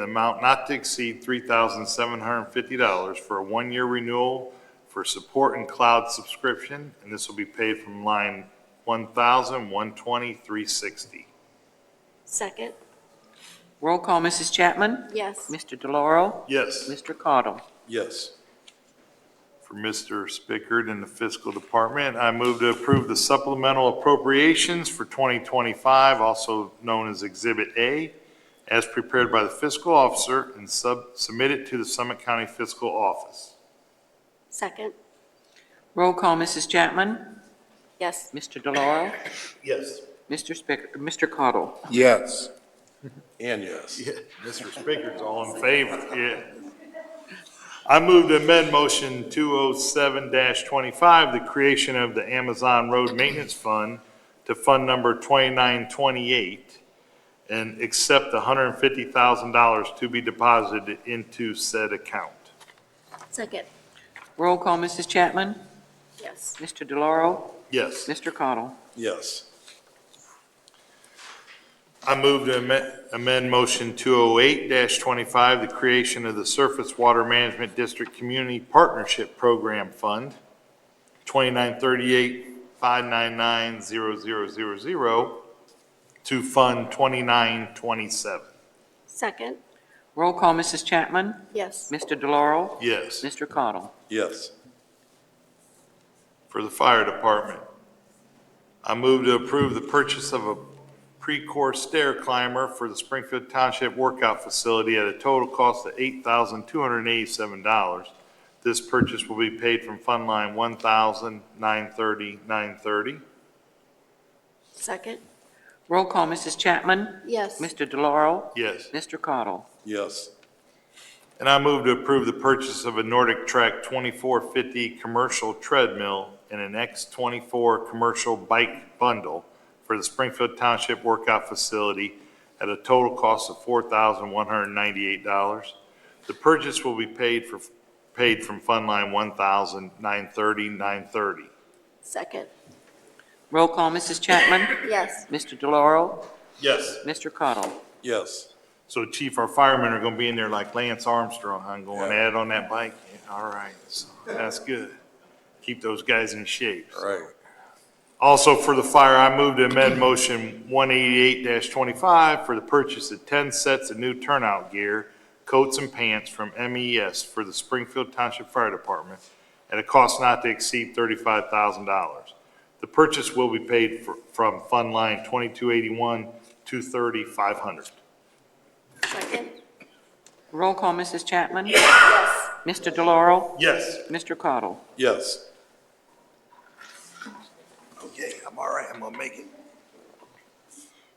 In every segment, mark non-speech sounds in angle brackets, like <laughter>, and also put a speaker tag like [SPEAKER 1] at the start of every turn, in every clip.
[SPEAKER 1] an amount not to exceed $3,750 for a one-year renewal for support and cloud subscription, and this will be paid from line 1,120,360.
[SPEAKER 2] Second,
[SPEAKER 3] Roll call, Mrs. Chapman?
[SPEAKER 2] yes.
[SPEAKER 3] Mr. DeLauro?
[SPEAKER 1] Yes.
[SPEAKER 3] Mr. Caudle?
[SPEAKER 4] Yes.
[SPEAKER 1] for Mr. Spickard in the fiscal department. I move to approve the supplemental appropriations for 2025, also known as Exhibit A, as prepared by the fiscal officer and sub- submitted to the Summit County Fiscal Office.
[SPEAKER 2] Second,
[SPEAKER 3] Roll call, Mrs. Chapman?
[SPEAKER 2] yes.
[SPEAKER 3] Mr. DeLauro?
[SPEAKER 1] Yes.
[SPEAKER 3] Mr. Spick, Mr. Caudle?
[SPEAKER 4] Yes. And yes.
[SPEAKER 1] Mr. Spickard's all in favor, yeah. I move to amend motion 207-25, the creation of the Amazon Road Maintenance Fund to fund number 2928, and accept the $150,000 to be deposited into said account.
[SPEAKER 2] Second,
[SPEAKER 3] Roll call, Mrs. Chapman?
[SPEAKER 2] yes.
[SPEAKER 3] Mr. DeLauro?
[SPEAKER 1] Yes.
[SPEAKER 3] Mr. Caudle?
[SPEAKER 4] Yes.
[SPEAKER 1] I move to amend- amend Motion 208-25, the creation of the Surface Water Management District Community Partnership Program Fund, 2938-599-0000, to Fund 2927.
[SPEAKER 2] Second,
[SPEAKER 3] Roll call, Mrs. Chapman?
[SPEAKER 2] yes.
[SPEAKER 3] Mr. DeLauro?
[SPEAKER 1] Yes.
[SPEAKER 3] Mr. Caudle?
[SPEAKER 4] Yes.
[SPEAKER 1] for the fire department. I move to approve the purchase of a pre-core stair climber for the Springfield Township Workout Facility at a total cost of $8,287. This purchase will be paid from Fund Line 1,930,930.
[SPEAKER 2] Second,
[SPEAKER 3] Roll call, Mrs. Chapman?
[SPEAKER 2] yes.
[SPEAKER 3] Mr. DeLauro?
[SPEAKER 1] Yes.
[SPEAKER 3] Mr. Caudle?
[SPEAKER 4] Yes.
[SPEAKER 1] And I move to approve the purchase of a Nordic Trek 2450 commercial treadmill and an X24 commercial bike bundle for the Springfield Township Workout Facility at a total cost of $4,198. The purchase will be paid for, paid from Fund Line 1,930,930.
[SPEAKER 2] Second,
[SPEAKER 3] Roll call, Mrs. Chapman?
[SPEAKER 2] yes.
[SPEAKER 3] Mr. DeLauro?
[SPEAKER 1] Yes.
[SPEAKER 3] Mr. Caudle?
[SPEAKER 4] Yes.
[SPEAKER 1] So Chief, our firemen are going to be in there like Lance Armstrong, huh, going at it on that bike? Yeah, All right, so that's good. Keep those guys in shape.
[SPEAKER 4] All right.
[SPEAKER 1] Also for the fire, I move to amend motion 188-25 for the purchase of 10 sets of new turnout gear, coats and pants from MES for the Springfield Township Fire Department at a cost not to exceed $35,000. The purchase will be paid for- from Fund Line 2281, 230,500.
[SPEAKER 2] Second,
[SPEAKER 3] Roll call, Mrs. Chapman?
[SPEAKER 2] yes.
[SPEAKER 3] Mr. DeLauro?
[SPEAKER 1] Yes.
[SPEAKER 3] Mr. Caudle?
[SPEAKER 4] Yes.
[SPEAKER 1] Okay, I'm all right, I'm gonna make it.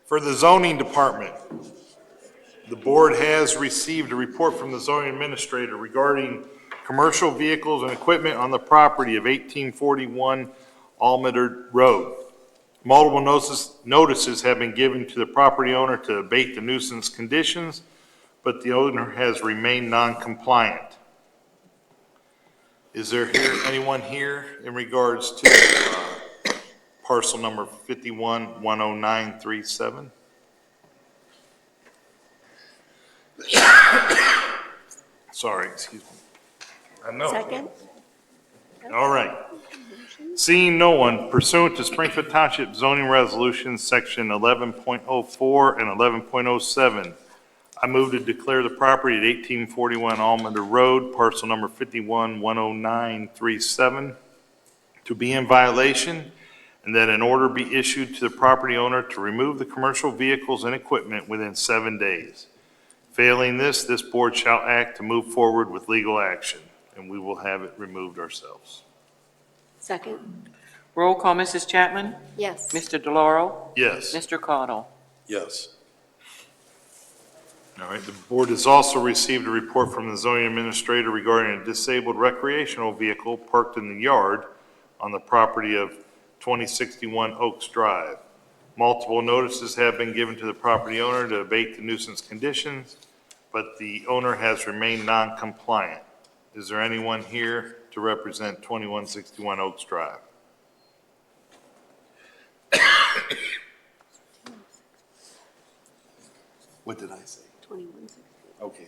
[SPEAKER 1] For the zoning department, the board has received a report from the zoning administrator regarding commercial vehicles and equipment on the property of 1841 Almeder Road. Multiple notices, notices have been given to the property owner to abate the nuisance conditions, but the owner has remained non-compliant. Is there here, anyone here in regards to uh, parcel number 51-10937. <coughs> Sorry, excuse me. I know.
[SPEAKER 2] Second,
[SPEAKER 1] All right. Seeing no one pursuant to Springfield Township zoning resolution, section 11.04 and 11.07, I move to declare the property at 1841 Almonder Road, parcel number 51-10937, to be in violation, and that an order be issued to the property owner to remove the commercial vehicles and equipment within seven days. Failing this, this board shall act to move forward with legal action, and we will have it removed ourselves.
[SPEAKER 2] second,
[SPEAKER 3] Roll call, Mrs. Chapman?
[SPEAKER 2] yes.
[SPEAKER 3] Mr. DeLauro?
[SPEAKER 1] Yes.
[SPEAKER 3] Mr. Caudle?
[SPEAKER 4] Yes.
[SPEAKER 1] All right, the board has also received a report from the zoning administrator regarding a disabled recreational vehicle parked in the yard on the property of 2061 Oaks Drive. Multiple notices have been given to the property owner to abate the nuisance conditions, but the owner has remained non-compliant. Is there anyone here to represent 2161 Oaks Drive? What did I say?
[SPEAKER 2] 21, 16.
[SPEAKER 5] Okay.